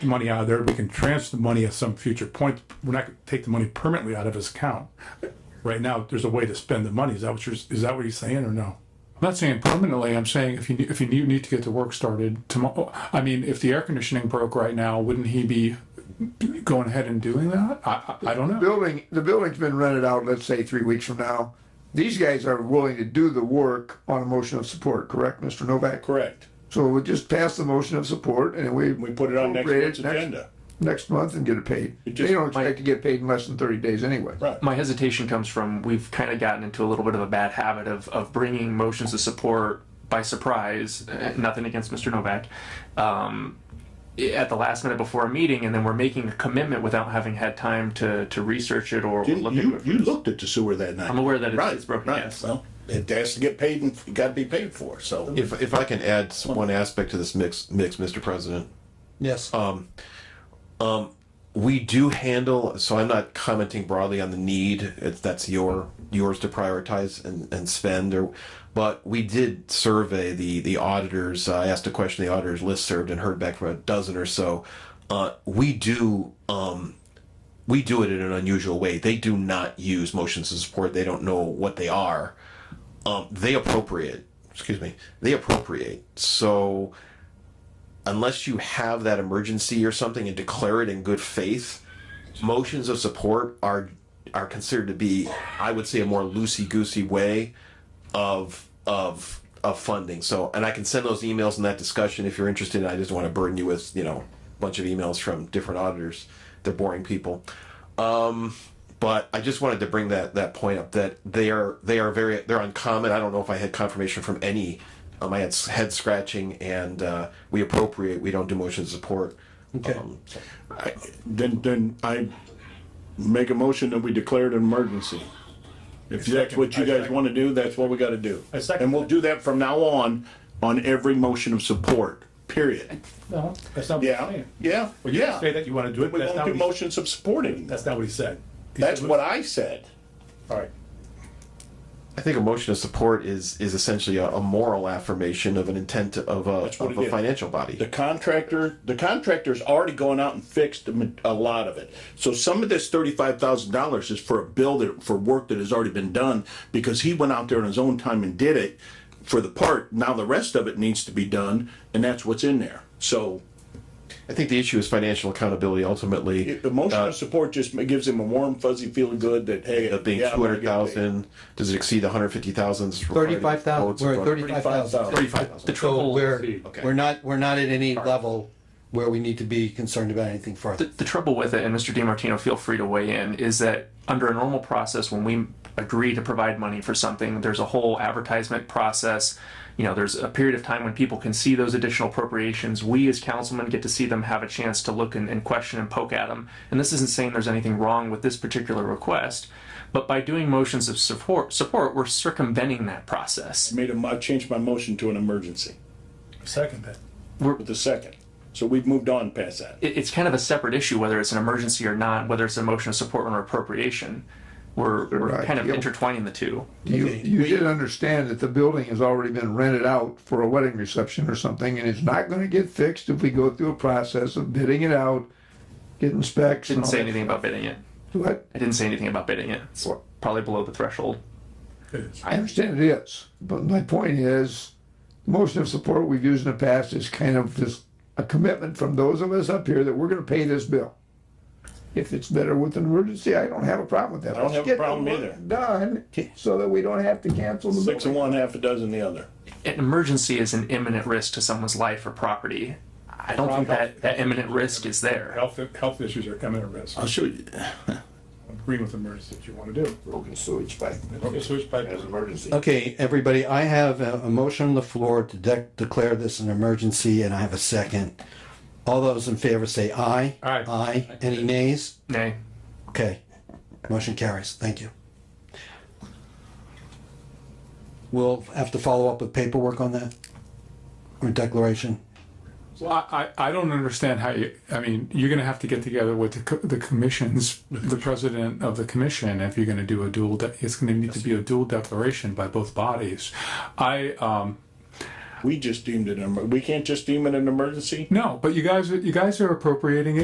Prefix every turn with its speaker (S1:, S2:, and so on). S1: money out of there, we can transfer the money at some future point. We're not gonna take the money permanently out of his account. Right now, there's a way to spend the money. Is that what you're, is that what he's saying or no?
S2: I'm not saying permanently, I'm saying if you, if you need- need to get the work started tomorrow, I mean, if the air conditioning broke right now, wouldn't he be going ahead and doing that? I, I I don't know.
S3: building, the building's been rented out, let's say, three weeks from now. These guys are willing to do the work on a motion of support, correct, Mr. Novak?
S4: Correct.
S3: So we'll just pass the motion of support and we.
S4: We put it on next
S3: appropriate
S4: month's
S3: it next-
S4: agenda.
S3: Next month and get it paid.
S4: just-
S3: They don't expect to get paid in less than thirty days anyway.
S4: Right.
S5: my hesitation comes from we've kind of gotten into a little bit of a bad habit of, of bringing motions of support by surprise. uh, Nothing against Mr. Novak. Um, at the last minute before a meeting, and then we're making a commitment without having had time to, to research it or
S4: Didn't
S5: look into
S4: you,
S5: it.
S4: you looked at the sewer that night.
S5: I'm aware that it's-
S4: Right,
S5: it's broken,
S4: right.
S5: yes.
S4: Well, it has to get paid and it gotta be paid for, so.
S6: If, if I can add s- one aspect to this mix, mix, Mr. President, Um,
S7: Yes.
S6: we do handle, so I'm not commenting broadly on the need, it's, that's your, yours to prioritize and, and spend or, but we did survey the, the auditors, I asked a question, the auditors list served and heard back from a dozen or so. Uh, we do, um, we do it in an unusual way. They do not use motions of support. They don't know what they are. Um, they appropriate, excuse me, they appropriate. So, unless you have that emergency or something and declare it in good faith, motions of support are are considered to be, I would say, a more loosey goosey way of of of funding. So, and I can send those emails and that discussion if you're interested. I just want to burden you with you know a bunch of emails from different auditors. They're boring people. Um, but I just wanted to bring that that point up that they are they are very they're uncommon. I don't know if I had confirmation from any. Um, I had s- head scratching, and uh, we appropriate. We don't do motion support.
S7: Okay.
S6: Um,
S4: I- Then, then I make a motion that we declare it an emergency. If that's what you guys wanna do, that's what we gotta do.
S2: second
S4: And we'll do that from now on, on every motion of support, period.
S1: No, that's not
S4: Yeah, yeah, yeah.
S1: Say that you wanna do it, but
S4: We
S1: that's
S4: won't
S1: not
S4: do
S1: what he,
S4: motions of supporting.
S1: that's not what he said. He
S4: That's
S1: said-
S4: what I said.
S1: All right.
S6: I think a motion of support is is essentially a, a moral affirmation of an intent of a
S4: what
S6: of
S4: it
S6: a
S4: is.
S6: financial body.
S4: The contractor, the contractor's already going out and fixed a ma- a lot of it. So some of this thirty-five thousand dollars is for a bill that, for work that has already been done, because he went out there on his own time and did it for the part. Now the rest of it needs to be done, and that's what's in there. So
S6: I think the issue is financial accountability ultimately.
S4: it- the motion
S6: Uh,
S4: of e, support just ma- gives him a warm fuzzy feeling good that, hey.
S6: of being
S4: yeah, I'm
S6: two
S4: gonna get
S6: hundred thousand, does it exceed one hundred fifty thousand?
S7: Thirty-five thousand, we're at thirty-five thousand.
S6: Thirty-five
S7: The
S6: thousand.
S7: trouble. We're,
S6: Okay.
S7: we're not, we're not at any level where we need to be concerned about anything
S5: the,
S7: further.
S5: the trouble with it, and Mr. DiMartino, feel free to weigh in, is that under a normal process, when we agree to provide money for something, there's a whole advertisement process. You know, there's a period of time when people can see those additional appropriations. We as councilmen get to see them, have a chance to look and, and question and poke at them. And this isn't saying there's anything wrong with this particular request, but by doing motions of support, support, we're circumventing that process.
S4: Made him, I changed my motion to an emergency
S1: Second that.
S4: with the second. So we've moved on past that.
S5: it, it's kind of a separate issue whether it's an emergency or not, whether it's a motion of support or appropriation. We're, we're
S3: Right,
S5: kind of
S3: yep.
S5: intertwining the two.
S3: You, you did understand that the building has already been rented out for a wedding reception or something, and it's not gonna get fixed if we go through a process of bidding it out, getting specs. and
S5: Didn't
S3: all
S5: say
S3: that.
S5: anything about bidding it.
S3: What?
S5: I didn't say anything about bidding it. It's probably below the threshold.
S3: I understand it is, but my point is, the motion of support we've used in the past is kind of this, a commitment from those of us up here that we're gonna pay this bill. If it's better with an emergency, I don't have a problem with that.
S4: I don't have a
S3: Let's get the
S4: problem
S3: work
S4: either.
S3: Done, so that we don't have to cancel the
S4: Six
S3: building.
S4: and one, half a dozen the other.
S5: An emergency is an imminent risk to someone's life or property. I don't think that, that imminent risk is there.
S1: Health, health issues are coming at risk.
S4: I'll show you.
S1: Agreeing with the emergency that you wanna do.
S3: Broken sewage pipe
S1: Okay, switch back.
S3: emergency.
S7: Okay, everybody, I have a, a motion on the floor to de- declare this an emergency and I have a second. All those in favor say aye.
S1: Aye.
S7: Aye. Any nays?
S5: Nay.
S7: Okay, motion carries, thank you. We'll have to follow up with paperwork on that? Or declaration?
S2: Well, I, I I don't understand how you, I mean, you're gonna have to get together with the, co- the commissions, the president of the commission, if you're gonna do a dual, de- it's gonna need to be a dual declaration by both bodies. I, um,
S8: We just deemed it an, emer- we can't just deem it an emergency?
S4: No, but you guys, you guys are appropriating it.